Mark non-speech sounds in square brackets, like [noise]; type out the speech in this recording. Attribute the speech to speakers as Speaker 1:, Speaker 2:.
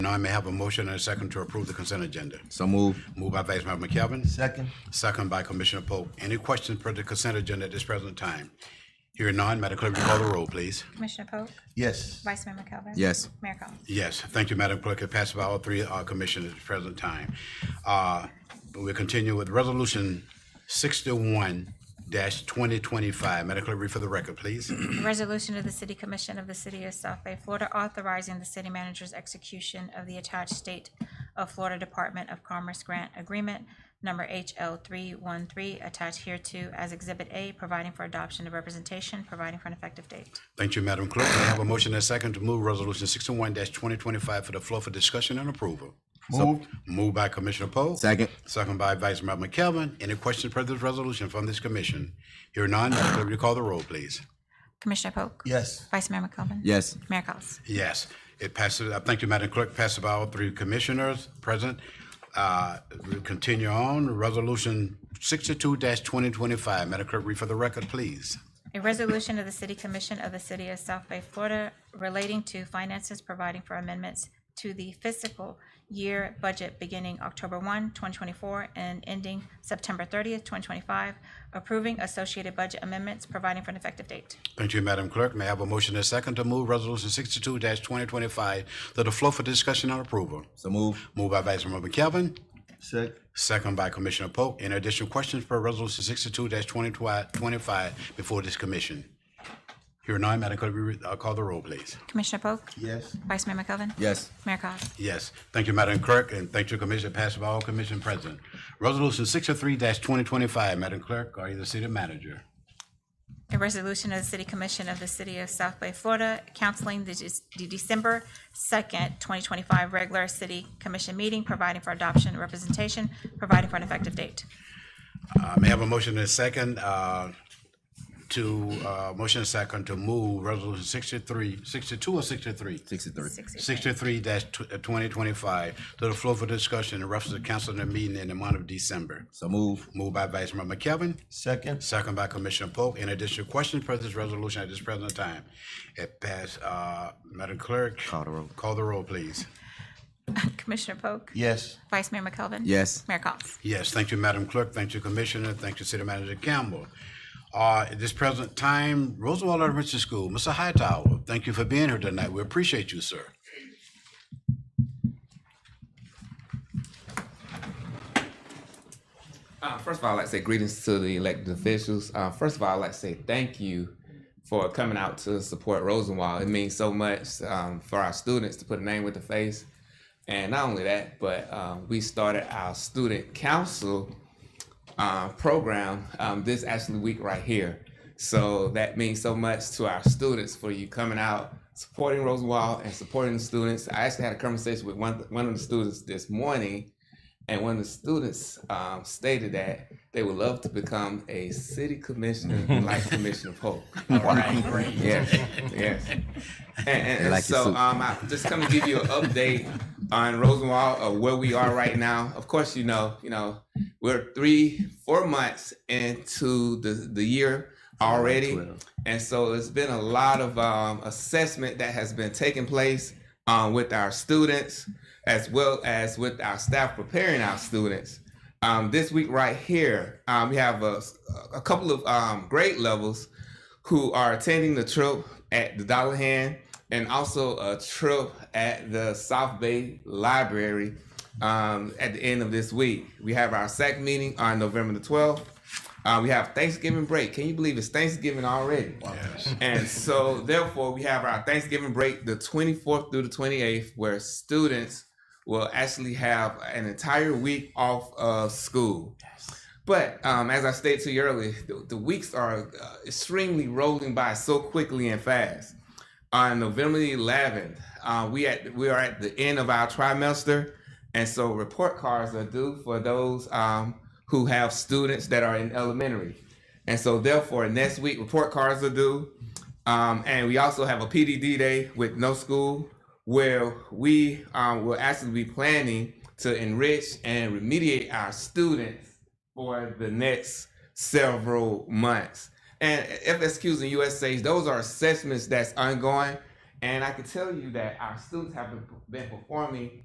Speaker 1: Now I may have a motion and a second to approve the consent agenda.
Speaker 2: So moved.
Speaker 1: Moved by Vice Mayor McKelvin.
Speaker 3: Second.
Speaker 1: Second by Commissioner Polk. Any questions per the consent agenda at this present time? Hearing none, Madam Clerk, will you call the roll, please.
Speaker 4: Commissioner Polk,
Speaker 3: Yes.
Speaker 4: Vice Mayor McKelvin.
Speaker 2: Yes.
Speaker 4: Mayor Collins.
Speaker 1: Yes, thank you, Madam Clerk. It passed by all three uh, commissioners at the present time. Uh, We'll continue with Resolution sixty-one twenty twenty-five. Madam Clerk, read for the record, please.
Speaker 4: Resolution of the City Commission of the City of South Bay, Florida, authorizing the city manager's execution of the attached State of Florida Department of Commerce Grant Agreement, number HL three one three, attached hereto as Exhibit A, providing for adoption of representation, providing for an effective date.
Speaker 1: Thank you, Madam Clerk. May I have a motion and a second to move Resolution sixty-one twenty twenty-five for the floor for discussion and approval?
Speaker 3: Moved.
Speaker 1: Moved by Commissioner Poe.
Speaker 2: Second.
Speaker 1: Second by Vice Mayor McKelvin. Any questions per this resolution from this commission? Hearing none, Madam Clerk, will you call the roll, please?
Speaker 4: Commissioner Polk.
Speaker 3: Yes.
Speaker 4: Vice Mayor McKelvin.
Speaker 2: Yes.
Speaker 4: Mayor Collins.
Speaker 1: Yes, it passes. I thank you, Madam Clerk. Passes by all three commissioners present. Uh, we continue on. Resolution sixty-two twenty twenty-five. Madam Clerk, read for the record, please.
Speaker 4: A resolution of the City Commission of the City of South Bay, Florida relating to finances providing for amendments to the fiscal year budget beginning October 1, 2024, and ending September thirtieth, twenty twenty-five, approving associated budget amendments, providing for an effective date.
Speaker 1: Thank you, Madam Clerk. May I have a motion and a second to move Resolution sixty-two twenty twenty-five to the floor for discussion and approval?
Speaker 2: So moved.
Speaker 1: Moved by Vice Mayor McKelvin,
Speaker 3: Second.
Speaker 1: second by Commissioner Polk. Any additional questions for Resolution sixty-two twenty twenty-five before this commission? Hearing none, Madam Clerk, we, uh, call the roll, please.
Speaker 4: Commissioner Polk?
Speaker 3: Yes.
Speaker 4: Vice Mayor McKelvin?
Speaker 2: Yes.
Speaker 4: Mayor Collins?
Speaker 1: Yes, thank you, Madam Clerk, and thank you, Commissioner, passed by all commission present. Resolution sixty-three twenty twenty-five, Madam Clerk, are you the city manager?
Speaker 4: A resolution of the City Commission of the City of South Bay, Florida, canceling the Dec- the December second, twenty twenty-five regular city commission meeting, providing for adoption and representation, providing for an effective date.
Speaker 1: Uh, may I have a motion and a second, uh, to, uh, motion and second to move resolution 63, 62 or sixty-three?
Speaker 2: Sixty-three.
Speaker 1: Sixty-three uh, twenty twenty-five to the floor for discussion in reference to canceling the meeting in the month of December.
Speaker 2: So moved.
Speaker 1: Moved by Vice Mayor McKelvin,
Speaker 3: Second.
Speaker 1: Second by Commissioner Polk. In addition, questions for this resolution at this present time? It passed, uh, Madam Clerk.
Speaker 2: Call the roll.
Speaker 1: Call the roll, please.
Speaker 4: [laughs] Commissioner Polk.
Speaker 3: Yes.
Speaker 4: Vice Mayor McKelvin.
Speaker 2: Yes.
Speaker 4: Mayor Collins.
Speaker 1: Yes, thank you, Madam Clerk. Thank you, Commissioner. Thank you, City Manager Campbell. Uh, at this present time, Roosevelt Elementary School, Mr. Hightower, thank you for being here tonight. We appreciate you, sir.
Speaker 5: Uh, first of all, I'd like to say greetings to the elected officials. Uh, first of all, I'd like to say thank you for coming out to support Rosenwald. It means so much um, for our students to put a name with the face. And not only that, but um, we started our student council uh, program um, this actually week right here. So that means so much to our students for you coming out, supporting Rosenwald and supporting the students. I actually had a conversation with one, one of the students this morning, and one of the students um, stated that they would love to become a city commissioner like Commissioner Polk. All right.
Speaker 2: [laughs]
Speaker 5: Yes, yes. And, and, and
Speaker 2: like your
Speaker 5: so
Speaker 2: suit.
Speaker 5: um, I just come to give you an update on Rosenwald of where we are right now. Of course, you know, you know, we're three, four months into the the year already, and so it's been a lot of um, assessment that has been taking place um, with our students as well as with our staff preparing our students. Um, this week, right here, um, we have a, a couple of um, grade levels who are attending the trip at the Dollar Hand and also a trip at the South Bay Library um, at the end of this week. We have our SAC meeting on November the 12th. Uh, we have Thanksgiving break. Can you believe it's Thanksgiving already?
Speaker 1: Yes.
Speaker 5: And so, therefore, we have our Thanksgiving break, the 24th through the 28th, where students will actually have an entire week off of school. But um, as I stated to you earlier, the, the weeks are uh, extremely rolling by so quickly and fast. On November the 11th, uh, we at we are at the end of our trimester, and so report cards are due for those um, who have students that are in elementary, and so therefore next week report cards are due, um, and we also have a PDD day with no school where we um, will actually be planning to enrich and remediate our students for the next several months. And FSQs and USAs, those are assessments that's ongoing. And I can tell you that our students have been- been performing